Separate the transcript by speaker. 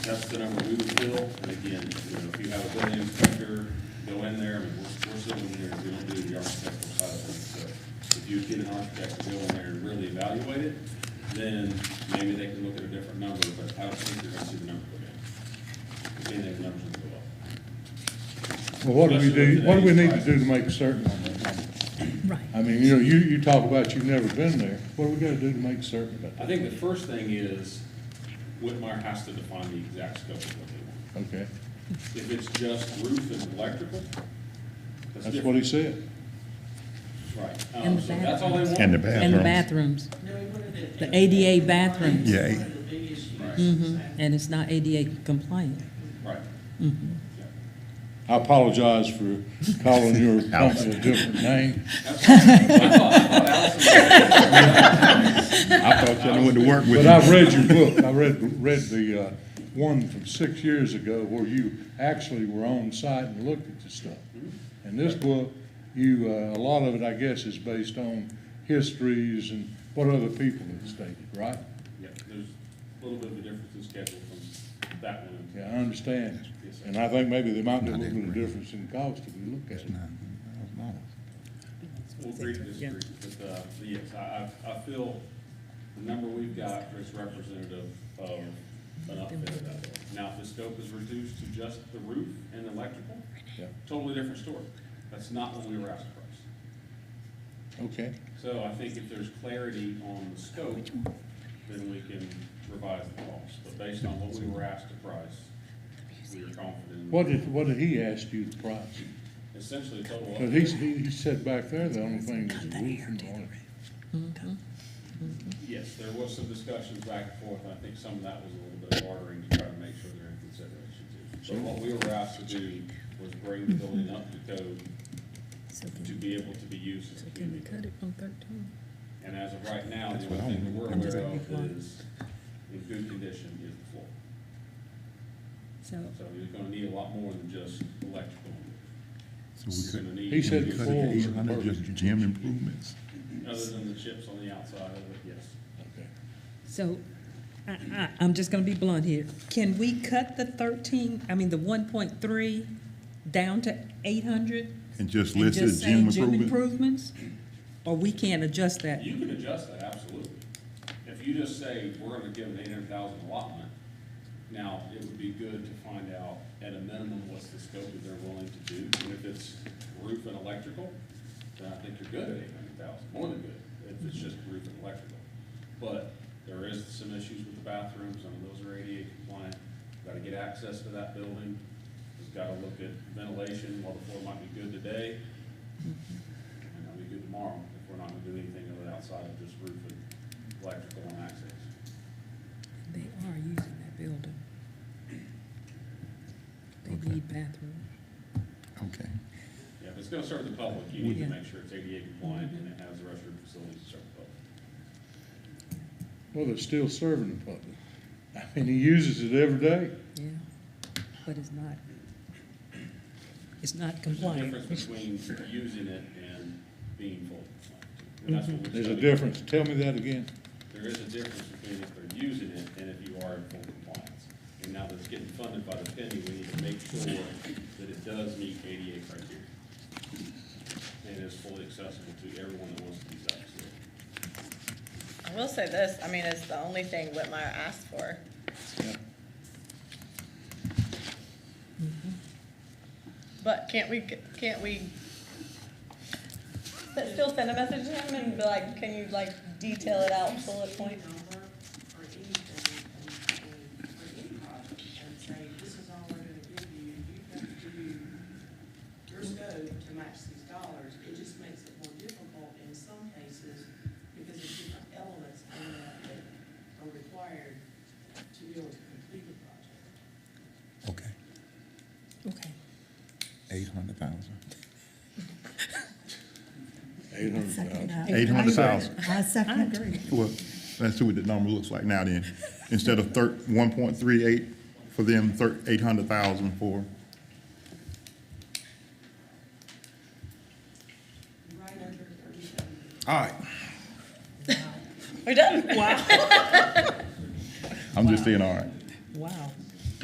Speaker 1: That's the number we would fill, and again, you know, if you have a building inspector, go in there, I mean, we're, we're still in there, we don't do the architectural side of things, so if you get an architect to go in there and really evaluate it, then maybe they can look at a different number, but I don't think they're gonna see the number go down. If anything, the numbers will go up.
Speaker 2: Well, what do we do, what do we need to do to make certain on that number?
Speaker 3: Right.
Speaker 2: I mean, you know, you, you talk about you've never been there, what do we gotta do to make certain about
Speaker 1: I think the first thing is, Whitmire has to define the exact scope of what they want.
Speaker 2: that? Okay,
Speaker 1: If it's just roof and electrical, that's
Speaker 2: that's what
Speaker 1: different.
Speaker 2: he said.
Speaker 1: Right. Um,
Speaker 3: And the
Speaker 1: so That's all they
Speaker 3: bathrooms.
Speaker 1: want.
Speaker 4: And the
Speaker 3: And the
Speaker 4: bathrooms.
Speaker 3: bathrooms,
Speaker 5: No, one of the.
Speaker 3: The ADA bathrooms.
Speaker 4: Yeah, eh.
Speaker 5: One of the big issues.
Speaker 1: Right.
Speaker 3: hmm and it's not ADA compliant.
Speaker 1: Right. Yeah.
Speaker 2: I apologize for calling your company a different name.
Speaker 4: I thought y'all went to work with
Speaker 2: But I've
Speaker 4: you.
Speaker 2: read your book, I read, read the, uh, one from six years ago where you actually were on site and looked at the stuff.
Speaker 4: Mm-hmm.
Speaker 2: And this book, you, uh, a lot of it, I guess, is based on histories and what other people have stated, right?
Speaker 1: Yeah, there's a little bit of a difference in schedule from that one.
Speaker 2: Yeah, I understand.
Speaker 1: Yes, sir.
Speaker 2: And I think maybe there might be a little bit of difference in cost if we look at it.
Speaker 1: We'll agree to disagree, but, uh, but yes, I, I, I feel the number we've got is representative of an outfit out there. Now, if the scope is reduced to just the roof and electrical,
Speaker 2: Yeah.
Speaker 1: totally different story. That's not what we were asked for.
Speaker 2: Okay,
Speaker 1: So I think if there's clarity on the scope, then we can revise the cost. But based on what we were asked to price, we are confident.
Speaker 2: what did, what did he ask you the price?
Speaker 1: Essentially, total.
Speaker 2: Cause he, he he said back there, the only thing was the roof and all that.
Speaker 1: Yes, there was some discussions back and forth, and I think some of that was a little bit of bartering to try to make sure they're in consideration too. So what we were asked to do was bring the building up to code
Speaker 3: So
Speaker 1: to be able to be used as a community.
Speaker 3: cut it from thirteen?
Speaker 1: And as of right now, the
Speaker 4: That's what
Speaker 1: only thing that we're
Speaker 4: I'm-
Speaker 1: aware of is, in good condition, is the floor.
Speaker 3: So,
Speaker 1: So you're gonna need a lot more than just electrical. You're gonna need-
Speaker 2: He said the floor was
Speaker 4: Eight hundred just
Speaker 2: impervious.
Speaker 4: gym improvements.
Speaker 1: Other than the chips on the outside of it, yes.
Speaker 2: Okay.
Speaker 3: so, I, I, I'm just gonna be blunt here. Can we cut the thirteen, I mean, the one point three down to eight hundred?
Speaker 4: And just
Speaker 3: And
Speaker 4: listed
Speaker 3: just
Speaker 4: gym
Speaker 3: say gym
Speaker 4: improvement.
Speaker 3: improvements? Or we can't adjust that?
Speaker 1: You can adjust that, absolutely. If you just say, we're gonna give an eight hundred thousand allotment, now, it would be good to find out at a minimum what's the scope that they're willing to do. And if it's roof and electrical, then I think you're good at eight hundred thousand, more than good, if it's just roof and electrical. But there is some issues with the bathrooms, I mean, those are ADA compliant, gotta get access to that building. Just gotta look at ventilation, while the floor might be good today, and it'll be good tomorrow if we're not gonna do anything of it outside of just roof and electrical and access.
Speaker 3: They are using that building.
Speaker 4: Okay.
Speaker 3: They need bathrooms.
Speaker 4: Okay.
Speaker 1: Yeah, if it's gonna serve the public, you need to
Speaker 3: Yeah.
Speaker 1: make sure it's ADA compliant and it has the restroom facilities to serve the public.
Speaker 2: Well, they're still serving the public. I mean, he uses it every day.
Speaker 3: Yeah, but it's not, it's not
Speaker 1: There's a
Speaker 3: compliant.
Speaker 1: difference between using it and being full. And that's what we're
Speaker 2: There's a
Speaker 1: studying.
Speaker 2: difference. Tell me that again.
Speaker 1: There is a difference between if they're using it and if you are in full compliance. And now that it's getting funded by the penny, we need to make sure that it does meet ADA criteria. And is fully accessible to everyone that wants to use that facility.
Speaker 6: I will say this, I mean, it's the only thing Whitmire asked for.
Speaker 2: Yeah.
Speaker 6: But can't we, can't we but still send a message to him and be like, can you like detail it out, bullet
Speaker 5: Any
Speaker 6: point?
Speaker 5: number or anything, and- and- or any project, and say, this is all we're gonna give you, you have to do your scope to match these dollars, it just makes it more difficult in some cases, because there's different elements in that that are required to be able to complete the project.
Speaker 4: Okay.
Speaker 3: Okay.
Speaker 4: Eight hundred thousand.
Speaker 2: Eight hundred thousand.
Speaker 4: Eight hundred thousand.
Speaker 7: I second.
Speaker 4: Well, let's see what the number looks like now then. Instead of thir, one point three eight for them, thir, eight hundred thousand for,
Speaker 5: Right under thirty-seven.
Speaker 4: all right.
Speaker 6: We're done.
Speaker 4: I'm just saying, all right.
Speaker 3: Wow.